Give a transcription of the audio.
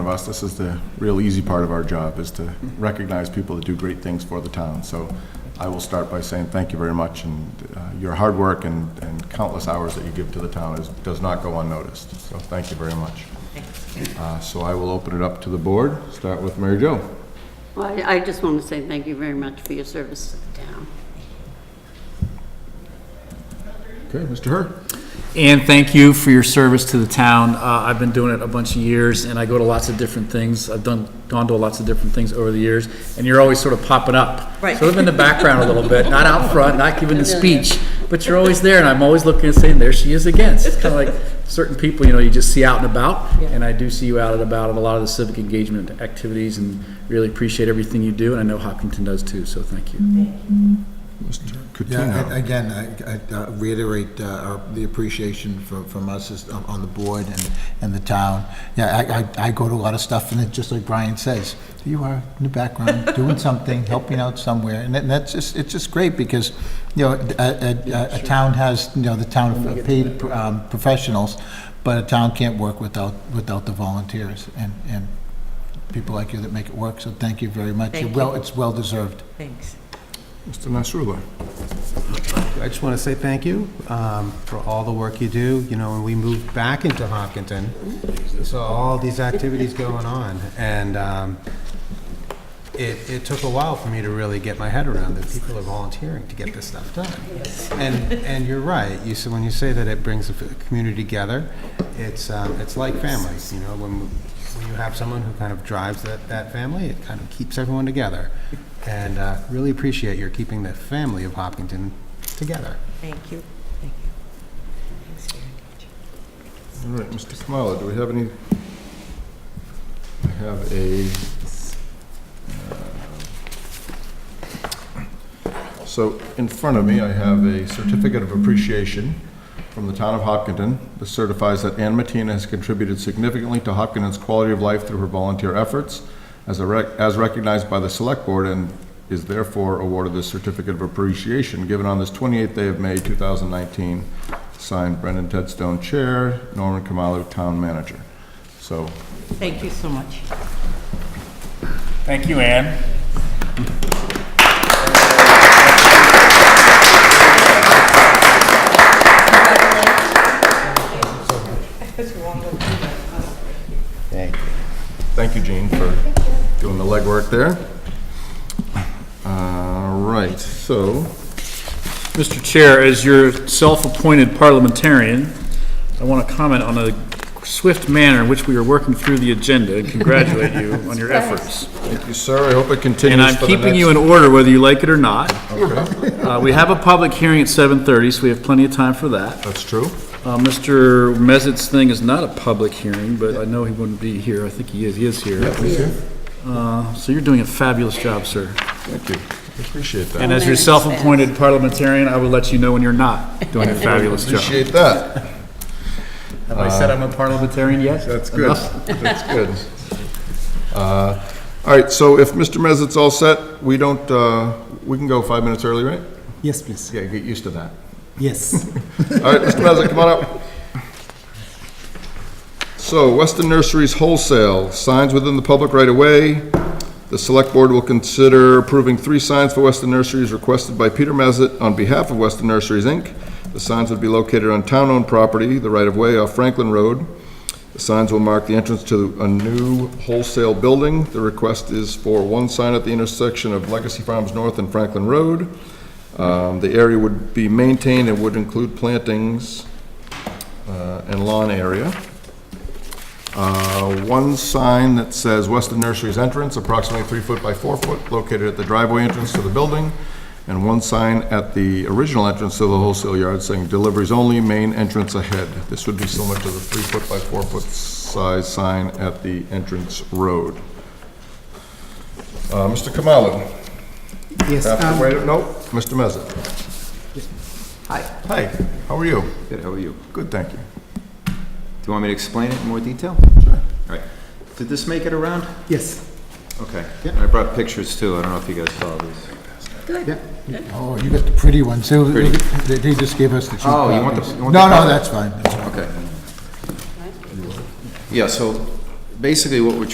of us, this is the real easy part of our job, is to recognize people that do great things for the town. So I will start by saying thank you very much, and uh, your hard work and and countless hours that you give to the town is, does not go unnoticed. So thank you very much. Uh, So I will open it up to the board, start with Mary Jo. Well, I I just want to say thank you very much for your service to the town. Okay, Mr. Herr? And thank you for your service to the town. Uh, I've been doing it a bunch of years, and I go to lots of different things. I've done, gone to lots of different things over the years, and you're always sort of popping up. Right. Sort of in the background a little bit, not out front, not giving the speech, but you're always there, and I'm always looking and saying, there she is again. It's kind of like certain people, you know, you just see out and about, and I do see you out and about at a lot of the civic engagement activities, and really appreciate everything you do, and I know Hopkinton does too, so thank you. Mr. Yeah, a- again, I- I uh, reiterate uh, our- the appreciation for- from us as- on on the board and, and the town. Yeah, I- I, I go to a lot of stuff, and it, just like Brian says, you are in the background, doing something, helping out somewhere, and that- that's just, it's just great, because, you know, a, a- a, a town has, you know, the town of paid um, professionals, but a town can't work without, without the volunteers, and, and people like you that make it work, so thank you very much. Thank Well, you. It's well-deserved. Thanks. Mr. Nasrullah. I just want to say thank you um, for all the work you do. You know, when we moved back into Hopkinton, so all these activities going on, and um, it, it took a while for me to really get my head around that people are volunteering to get this stuff done. And, and you're right, you said, when you say that it brings the community together, it's, um, it's like family, you know, when, when you have someone who kind of drives that, that family, it kind of keeps everyone together. And uh, really appreciate your keeping the family of Hopkinton together. Thank you. Thank you. Thanks very All much. right, Mr. Kamala, do we have any? I have a, uh, so in front of me, I have a certificate of appreciation from the town of Hopkinton. This certifies that Ann Matina has contributed significantly to Hopkinton's quality of life through her volunteer efforts as a rec- as recognized by the Select Board and is therefore awarded this certificate of appreciation given on this 28th day of May, 2019, signed Brendan Tedstone, Chair, Norman Kamalu, Town Manager. So Thank you so much. Thank you, Anne. Thank you. Thank you, Gene, for doing the legwork there. All right, so, Mr. Chair, as your self-appointed parliamentarian, I want to comment on the swift manner in which we are working through the agenda and congratulate you on your efforts. thank you, sir. I hope it continues And I'm for the keeping next- you in order whether you like it or not. Okay, Uh, We have a public hearing at 7:30, so we have plenty of time for that. That's true. Uh, Mr. Mezat's thing is not a public hearing, but I know he wouldn't be here. I think he is, he is here. Thank you. Uh, So you're doing a fabulous job, sir. Thank you. I Appreciate And that. as your self-appointed parliamentarian, I will let you know when you're not doing a fabulous job. Appreciate that. Have I said I'm a parliamentarian yet? That's good. Enough? That's good. Uh, All right, so if Mr. Mezat's all set, we don't, uh, we can go five minutes early, right? Yes, please. Yeah, get used to that. Yes. All right, Mr. Mezak, come on up. So, Weston Nurseries Wholesale, signs within the public right-of-way. The Select Board will consider approving three signs for Weston Nurseries requested by Peter Mezat on behalf of Weston Nurseries, Inc. The signs would be located on town-owned property, the right-of-way off Franklin Road. The signs will mark the entrance to a new wholesale building. The request is for one sign at the intersection of Legacy Farms North and Franklin Road. Um, The area would be maintained and would include plantings uh, and lawn area. Uh, One sign that says Weston Nurseries entrance, approximately three foot by four foot, located at the driveway entrance to the building, and one sign at the original entrance to the wholesale yard saying deliveries only, main entrance ahead. This would be similar to the three foot by four foot size sign at the entrance road. Uh, Mr. Kamalu, Yes. have um, to wait, no, Mr. Mezza. Hi, Hey, how are you? good, how are you? Good, thank you. Do you want me to explain it in more detail? All right. Did this make it around? Yes. Okay. And I brought pictures too, I don't know if you guys saw these. Oh, you got the pretty ones. They- Pretty. They they just gave us the cheap Oh, you want the- copies. you want the No, color? no, that's fine. That's fine. Okay. Yeah, so basically what we're